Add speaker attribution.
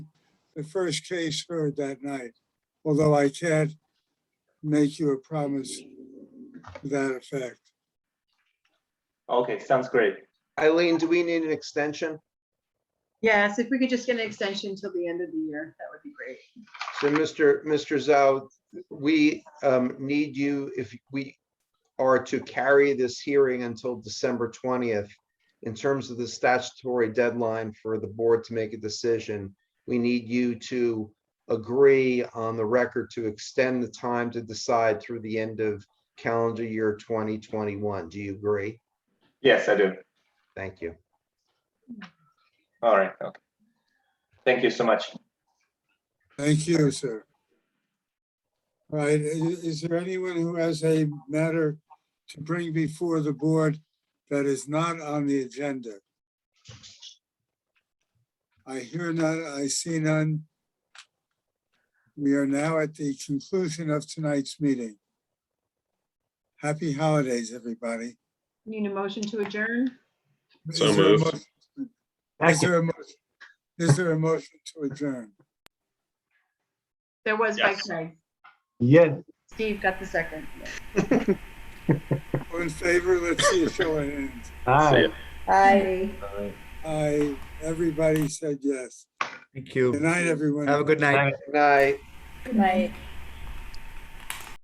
Speaker 1: the first case heard that night, although I can't make you a promise to that effect.
Speaker 2: Okay, sounds great.
Speaker 3: Eileen, do we need an extension?
Speaker 4: Yes, if we could just get an extension till the end of the year, that would be great.
Speaker 3: So Mr. Mr. Zhao, we um, need you, if we are to carry this hearing until December 20th, in terms of the statutory deadline for the board to make a decision, we need you to agree on the record to extend the time to decide through the end of calendar year 2021. Do you agree?
Speaker 2: Yes, I do.
Speaker 3: Thank you.
Speaker 2: All right, okay. Thank you so much.
Speaker 1: Thank you, sir. All right, i- is there anyone who has a matter to bring before the board that is not on the agenda? I hear none, I see none. We are now at the conclusion of tonight's meeting. Happy holidays, everybody.
Speaker 4: Need a motion to adjourn?
Speaker 1: Is
Speaker 5: So
Speaker 1: there a
Speaker 5: moved.
Speaker 1: motion- Is there a motion, is there a motion to adjourn?
Speaker 4: There was by
Speaker 5: Yes.
Speaker 4: Craig.
Speaker 6: Yes.
Speaker 4: Steve got the second.
Speaker 1: All in favor, let's see a show of hands.
Speaker 6: Hi.
Speaker 5: See ya.
Speaker 4: Aye.
Speaker 1: I, everybody said yes.
Speaker 7: Thank
Speaker 1: Good
Speaker 7: you.
Speaker 1: night, everyone.
Speaker 7: Have a good night.
Speaker 3: Good night.
Speaker 8: Good night.